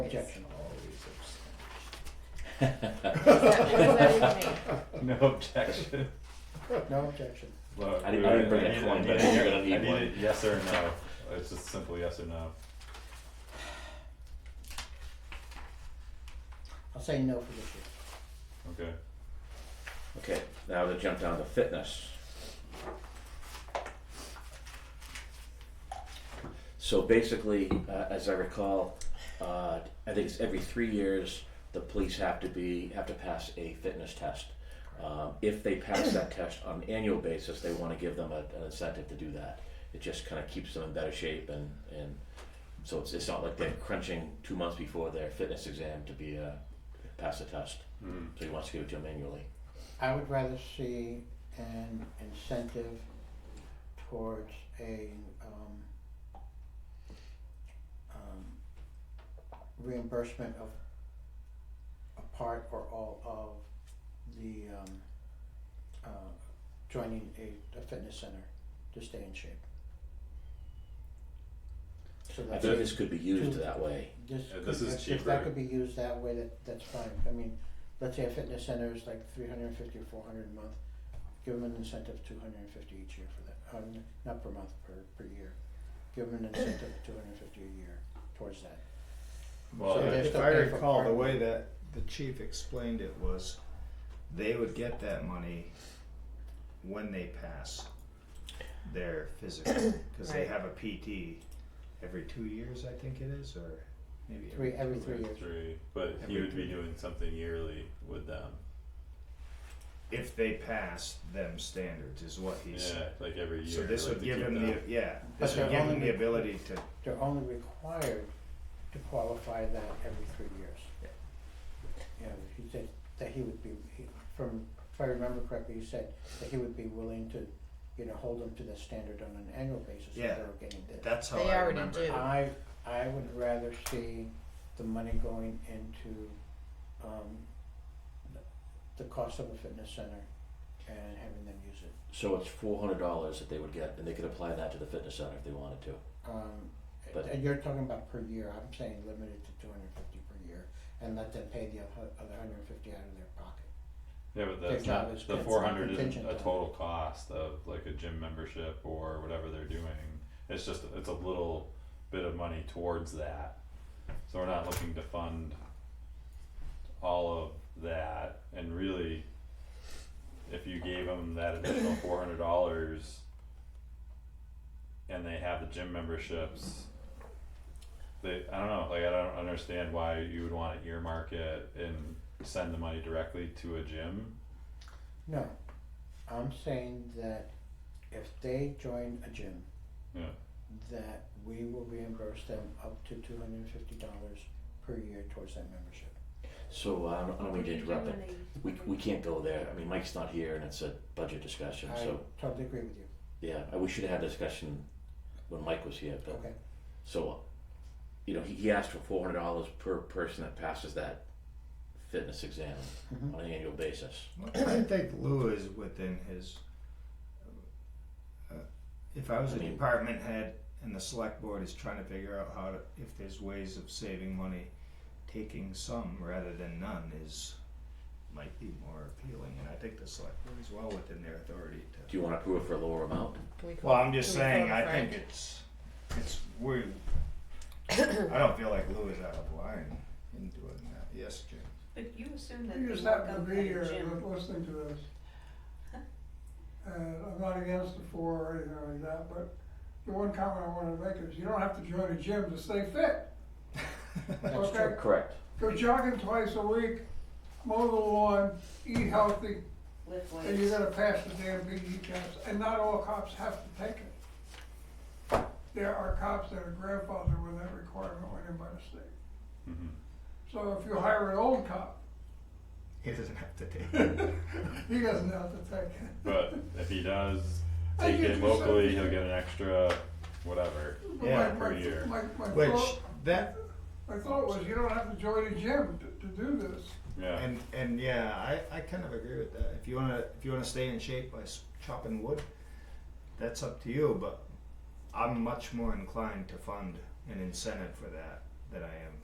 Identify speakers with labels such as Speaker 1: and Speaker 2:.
Speaker 1: Objection.
Speaker 2: No objection.
Speaker 1: No objection.
Speaker 2: Look,
Speaker 3: I didn't-
Speaker 2: we-
Speaker 3: I didn't bring a
Speaker 2: need-
Speaker 3: coin,
Speaker 2: I
Speaker 3: but I
Speaker 2: need-
Speaker 3: think you're gonna need
Speaker 2: I
Speaker 3: one.
Speaker 2: it yes or no. It's just simple yes or no.
Speaker 1: I'll say no for this year.
Speaker 2: Okay.
Speaker 3: Okay, now to jump down to fitness. So basically, uh, as I recall, uh, I think it's every three years the police have to be have to pass a fitness test. Um, if they pass that test on an annual basis, they want to give them a, an incentive to do that. It just kind of keeps them in better shape, and, and so it's, it's not like they're crunching two months before their fitness exam to be uh, pass the test.
Speaker 2: Mm.
Speaker 3: So he wants to give it to them annually.
Speaker 1: I would rather see an incentive towards a, um, um, reimbursement of a part or all of the, um, uh, joining a, a fitness center to stay in shape. So
Speaker 3: I
Speaker 1: that's.
Speaker 3: think this could be used that way.
Speaker 1: This
Speaker 2: Yeah,
Speaker 1: could,
Speaker 2: this
Speaker 1: if,
Speaker 2: is
Speaker 1: if that
Speaker 2: cheaper.
Speaker 1: could be used that way, that, that's fine, I mean, let's say a fitness center is like three hundred and fifty or four hundred a month. Give them an incentive two hundred and fifty each year for that, um, not per month, per, per year, give them an incentive of two hundred and fifty a year towards that.
Speaker 2: Well,
Speaker 1: So
Speaker 2: yeah,
Speaker 1: there's
Speaker 4: If
Speaker 1: still
Speaker 4: I
Speaker 1: pay for
Speaker 4: recall, the
Speaker 1: parking.
Speaker 4: way that the chief explained it was, they would get that money when they pass their physical, cause they
Speaker 5: Right.
Speaker 4: have a PT every two years, I think it is, or maybe
Speaker 1: Three, every
Speaker 4: two
Speaker 1: three
Speaker 4: years.
Speaker 1: years,
Speaker 2: three, but he
Speaker 4: Every
Speaker 2: would be
Speaker 4: three.
Speaker 2: doing something yearly with them.
Speaker 4: If they pass them standards is what he
Speaker 2: Yeah,
Speaker 4: said.
Speaker 2: like every year.
Speaker 4: So this
Speaker 2: like
Speaker 4: would
Speaker 2: to
Speaker 4: give
Speaker 2: keep
Speaker 4: him
Speaker 2: them.
Speaker 4: the, yeah,
Speaker 1: But
Speaker 4: this
Speaker 1: they're
Speaker 4: would give
Speaker 1: only
Speaker 4: him the
Speaker 1: re-
Speaker 4: ability to,
Speaker 1: they're only required to qualify that every three years.
Speaker 4: Yeah.
Speaker 1: You know, he said that he would be, he, from, if I remember correctly, he said that he would be willing to, you know, hold them to the standard on an annual basis if they
Speaker 4: Yeah.
Speaker 1: were getting this.
Speaker 4: that's how
Speaker 5: They
Speaker 4: I
Speaker 5: already
Speaker 4: remember.
Speaker 5: do.
Speaker 1: I, I would rather see the money going into, um, the- the cost of a fitness center and having them use it.
Speaker 3: So it's four hundred dollars that they would get, and they could apply that to the fitness center if they wanted to.
Speaker 1: Um,
Speaker 3: But-
Speaker 1: and you're talking about per year, I'm saying limited to two hundred and fifty per year, and let them pay the oth- other hundred and fifty out of their pocket.
Speaker 2: Yeah, but
Speaker 1: Their
Speaker 2: that's
Speaker 1: job
Speaker 2: not
Speaker 1: is
Speaker 2: the
Speaker 1: con-
Speaker 2: four hundred isn't
Speaker 1: contingent
Speaker 2: a
Speaker 1: on-
Speaker 2: total cost of like a gym membership or whatever they're doing. It's just it's a little bit of money towards that. So we're not looking to fund all of that and really if you gave them that additional four hundred dollars and they have the gym memberships they I don't know like I don't understand why you would want to earmark it and send the money directly to a gym
Speaker 1: No, I'm saying that if they join a gym.
Speaker 2: Yeah.
Speaker 1: That we will reimburse them up to two hundred and fifty dollars per year towards that membership.
Speaker 3: So uh, I don't, I don't mean to interrupt, but we we can't go there. I mean, Mike's not here, and it's a budget discussion.
Speaker 1: I
Speaker 3: So
Speaker 1: totally agree with you,
Speaker 3: yeah, I- we should have had a discussion when Mike was here. But
Speaker 1: okay,
Speaker 3: so, uh, you know, he, he asked for four hundred dollars per person that passes that fitness exam
Speaker 1: Mhm.
Speaker 3: on an annual basis.
Speaker 4: I think Lou is within his. uh, If I was
Speaker 3: I
Speaker 4: a
Speaker 3: mean-
Speaker 4: department head and the select board is trying to figure out how to, if there's ways of saving money, taking some rather than none is, might be more appealing, and I think the select board is well within their authority to.
Speaker 3: Do you want to approve it for a lower amount?
Speaker 4: Well, I'm just saying, I think it's, it's, we, I don't feel like Lou is out of line in doing that, yes, Jim?
Speaker 6: But you assume that
Speaker 7: You
Speaker 6: they
Speaker 7: just
Speaker 6: look
Speaker 7: happen
Speaker 6: up
Speaker 7: to
Speaker 6: at
Speaker 7: be
Speaker 6: a
Speaker 7: here
Speaker 6: gym.
Speaker 7: and listening to this. And I'm not against the four or anything like that, but the one comment I wanted to make is you don't have to join a gym to stay fit.
Speaker 1: That's
Speaker 7: Okay.
Speaker 1: true.
Speaker 3: Correct.
Speaker 7: Go jogging twice a week, mow the lawn, eat healthy,
Speaker 6: Lift
Speaker 7: and you're
Speaker 6: weights.
Speaker 7: gonna pass the damn PD test. And not all cops have to take it. There are cops that are grandfathered with that requirement when they're by the state.
Speaker 2: hmm
Speaker 7: So if you hire an old cop,
Speaker 4: He doesn't have to take it.
Speaker 7: he doesn't have to take it.
Speaker 2: But if he does
Speaker 7: I
Speaker 2: take
Speaker 7: get
Speaker 2: it
Speaker 7: you
Speaker 2: locally,
Speaker 7: something.
Speaker 2: he'll get an extra whatever.
Speaker 4: Yeah,
Speaker 7: My- my-
Speaker 2: per year.
Speaker 7: My, my
Speaker 4: Which,
Speaker 7: thought-
Speaker 4: that,
Speaker 7: My thought was, you don't have to join a gym to, to do this.
Speaker 2: Yeah.
Speaker 4: And and yeah, I, I kind of agree with that. If you wanna if you wanna stay in shape by s- chopping wood, that's up to you. But I'm much more inclined to fund an incentive for that than I am